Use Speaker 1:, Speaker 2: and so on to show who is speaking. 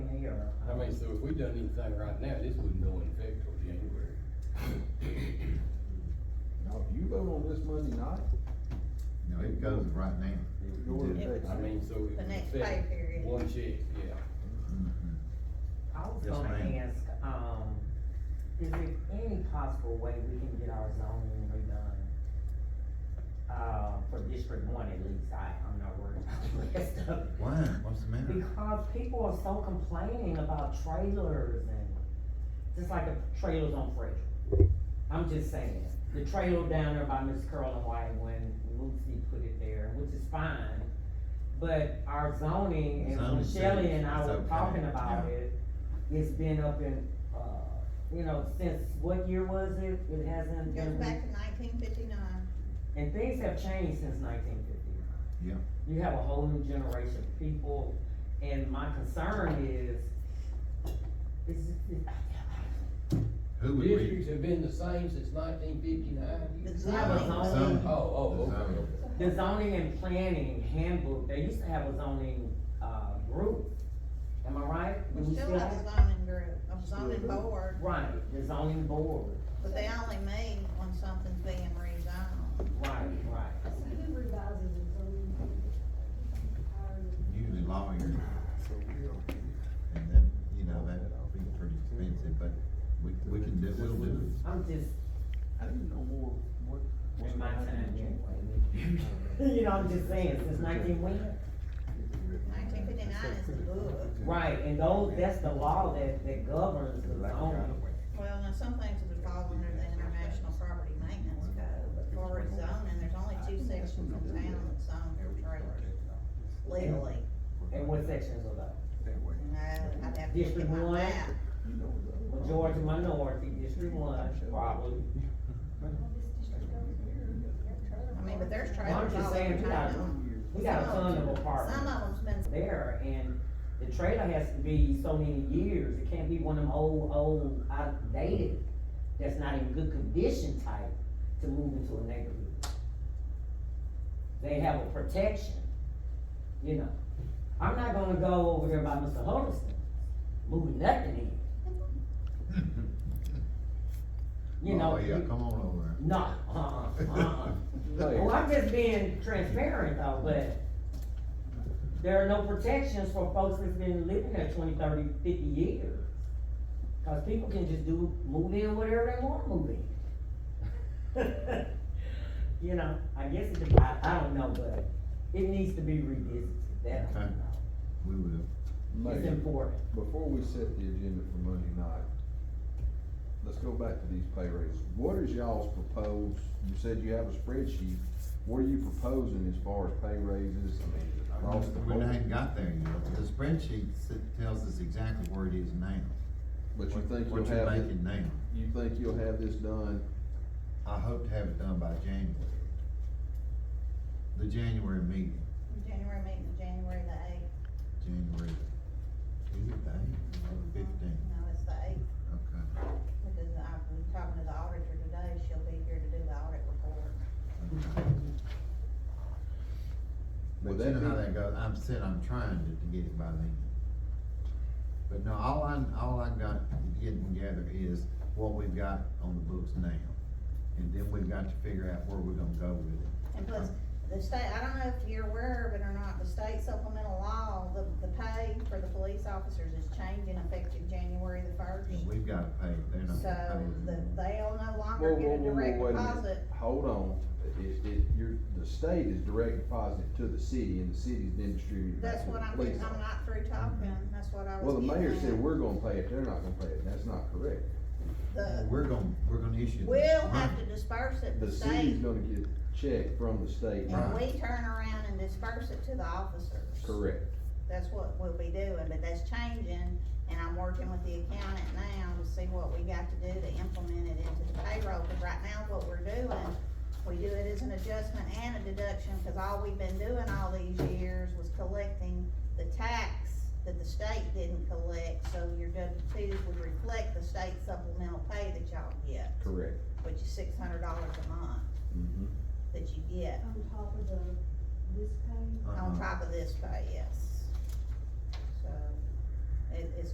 Speaker 1: saying, so if we done anything right now, this wouldn't go in effect till January.
Speaker 2: No, you vote on this Monday night,
Speaker 3: No, it goes right now.
Speaker 2: it goes
Speaker 3: Yeah.
Speaker 2: next
Speaker 1: I mean, so it
Speaker 4: The
Speaker 1: would
Speaker 4: next
Speaker 1: affect
Speaker 4: pay period.
Speaker 1: one check, yeah.
Speaker 2: Mm-hmm.
Speaker 3: Mhm.
Speaker 5: I was
Speaker 3: Yes,
Speaker 5: gonna
Speaker 3: ma'am.
Speaker 5: ask, um, is there any possible way we can get our zoning redone? Uh, for District One at least, I, I'm not worried about the rest of it.
Speaker 3: Why? What's the matter?
Speaker 5: Because people are so complaining about trailers and, just like the trailers on Frederick. I'm just saying, the trailer down there by Miss Curl and White when Lucy put it there, which is fine. But our zoning, and when
Speaker 3: Zoning says
Speaker 5: Shelley and I
Speaker 3: it's
Speaker 5: were
Speaker 3: okay,
Speaker 5: talking about
Speaker 3: yeah.
Speaker 5: it, it's been up in, uh, you know, since what year was it? It hasn't
Speaker 4: Goes
Speaker 5: been,
Speaker 4: back to nineteen fifty-nine.
Speaker 5: and things have changed since nineteen fifty-nine.
Speaker 3: Yeah.
Speaker 5: You have a whole new generation of people, and my concern is, is, is,
Speaker 3: Who would we?
Speaker 1: Districts have been the same since nineteen fifty-nine.
Speaker 4: The
Speaker 5: have a
Speaker 4: zoning,
Speaker 3: Some-
Speaker 1: Oh, oh,
Speaker 3: The
Speaker 1: okay,
Speaker 3: zoning.
Speaker 1: okay.
Speaker 5: the zoning and planning handbook, they used to have a zoning, uh, group, am I right? Do
Speaker 4: we still have a zoning group, a zoning board,
Speaker 5: Right, the zoning board,
Speaker 4: but they only meet when something's being rezoned.
Speaker 5: right, right.
Speaker 6: Who revises the zoning?
Speaker 3: Usually lawyers,
Speaker 2: So we are.
Speaker 3: and then, you know, that'd be pretty expensive, but we, we can do, we'll do
Speaker 5: I'm just,
Speaker 2: I didn't know more, what. what's
Speaker 5: in my
Speaker 2: gonna happen
Speaker 5: time,
Speaker 2: in January.
Speaker 5: anyway. You know, I'm just saying, since nineteen when?
Speaker 4: Nineteen fifty-nine is the book.
Speaker 5: Right, and those, that's the law that, that governs the zoning.
Speaker 4: Well, now, some things would fall under the International Property Maintenance Code, but for its zoning, there's only two sections in town that's zoned for trailers legally.
Speaker 5: And what sections of that?
Speaker 4: No, I'd have to look
Speaker 5: District
Speaker 4: at my
Speaker 5: one?
Speaker 4: map.
Speaker 5: Majority minority, District One, probably.
Speaker 4: I mean, but there's
Speaker 5: Well, I'm
Speaker 4: trailers
Speaker 5: just
Speaker 4: all over
Speaker 5: saying, we got,
Speaker 4: town.
Speaker 5: we got a ton of
Speaker 4: Some
Speaker 5: apartments
Speaker 4: of them's been
Speaker 5: there, and the trailer has to be so many years, it can't be one of them old, old, outdated, that's not in good condition type to move into a neighborhood. They have a protection, you know, I'm not gonna go over there by Mr. Huddleston, moving nothing in,
Speaker 3: it.
Speaker 5: you know?
Speaker 3: Oh, yeah,
Speaker 5: you-
Speaker 3: come on over.
Speaker 5: No, uh-uh, uh-uh. Well, I'm just being transparent though, but there are no protections for folks that's been living there 20, 30, 50 years. Cause people can just do, move in whatever they want to move in. You know, I guess it, dep- I, I don't know, but it needs to be revisited, that I
Speaker 3: Okay.
Speaker 5: don't know.
Speaker 3: We will.
Speaker 5: It's
Speaker 2: Mayor,
Speaker 5: important.
Speaker 2: before we set the agenda for Monday night, let's go back to these pay raises. What is y'all's proposed, you said you have a spreadsheet, what are you proposing as far as pay raises, I mean, across the
Speaker 3: We
Speaker 2: board?
Speaker 3: ain't got there yet. The spreadsheet s- tells us exactly where it is now.
Speaker 2: But you
Speaker 3: what-
Speaker 2: think
Speaker 3: What
Speaker 2: you'll
Speaker 3: you're
Speaker 2: have, it-
Speaker 3: making now.
Speaker 2: you think you'll have this done,
Speaker 3: I hope to have it done by January. The January meeting,
Speaker 4: January meeting, January the eighth.
Speaker 3: January, is it the eighth or the fifteenth?
Speaker 4: No, it's the eighth,
Speaker 3: Okay,
Speaker 4: because I've been talking to the auditor today, she'll be here to do the audit report.
Speaker 3: okay.
Speaker 2: Would
Speaker 3: But
Speaker 2: that
Speaker 3: you know how
Speaker 2: be-
Speaker 3: that goes, I'm said I'm trying to, to get it by then. But no, all I, all I got, getting together is what we've got on the books now. And then we've got to figure out where we're gonna go with it.
Speaker 4: And plus, the state, I don't know if you're aware of it or not, the state supplemental law, the, the pay for the police officers is changing effective January the first.
Speaker 3: And we've gotta pay, they're not
Speaker 4: So,
Speaker 3: gonna pay.
Speaker 4: the,
Speaker 3: anymore.
Speaker 4: they'll no
Speaker 2: Whoa,
Speaker 4: longer
Speaker 2: whoa,
Speaker 4: get a
Speaker 2: whoa, whoa,
Speaker 4: direct
Speaker 2: wait a minute.
Speaker 4: deposit.
Speaker 2: hold on, it, it, you're, the state is direct deposited to the city, and the city's then distributed back
Speaker 4: That's
Speaker 2: to the
Speaker 4: what I'm,
Speaker 2: police
Speaker 4: I'm
Speaker 2: officer.
Speaker 4: not through talking, that's what I was
Speaker 2: Well, the
Speaker 4: getting at.
Speaker 2: mayor said, we're gonna pay it, they're not gonna pay it, that's not correct.
Speaker 4: The,
Speaker 3: We're gonna, we're gonna issue. the
Speaker 4: we'll have
Speaker 3: money.
Speaker 4: to disperse it,
Speaker 2: The
Speaker 4: the
Speaker 2: city's
Speaker 4: state,
Speaker 2: gonna get a check from the state,
Speaker 4: and
Speaker 3: Right.
Speaker 4: we turn around and disperse it to the officers.
Speaker 2: correct?
Speaker 4: That's what we'll be doing, but that's changing, and I'm working with the accountant now to see what we got to do to implement it into the payroll, cause right now what we're doing, we do it as an adjustment and a deduction, cause all we've been doing all these years was collecting the tax that the state didn't collect, so your W twos would reflect the state supplemental pay that y'all get,
Speaker 2: Correct.
Speaker 4: which is six hundred dollars a month
Speaker 2: Mm-hmm.
Speaker 4: that you get
Speaker 6: On top of the, this page?
Speaker 3: Uh-huh.
Speaker 4: on top of this pay, yes. So, it, it's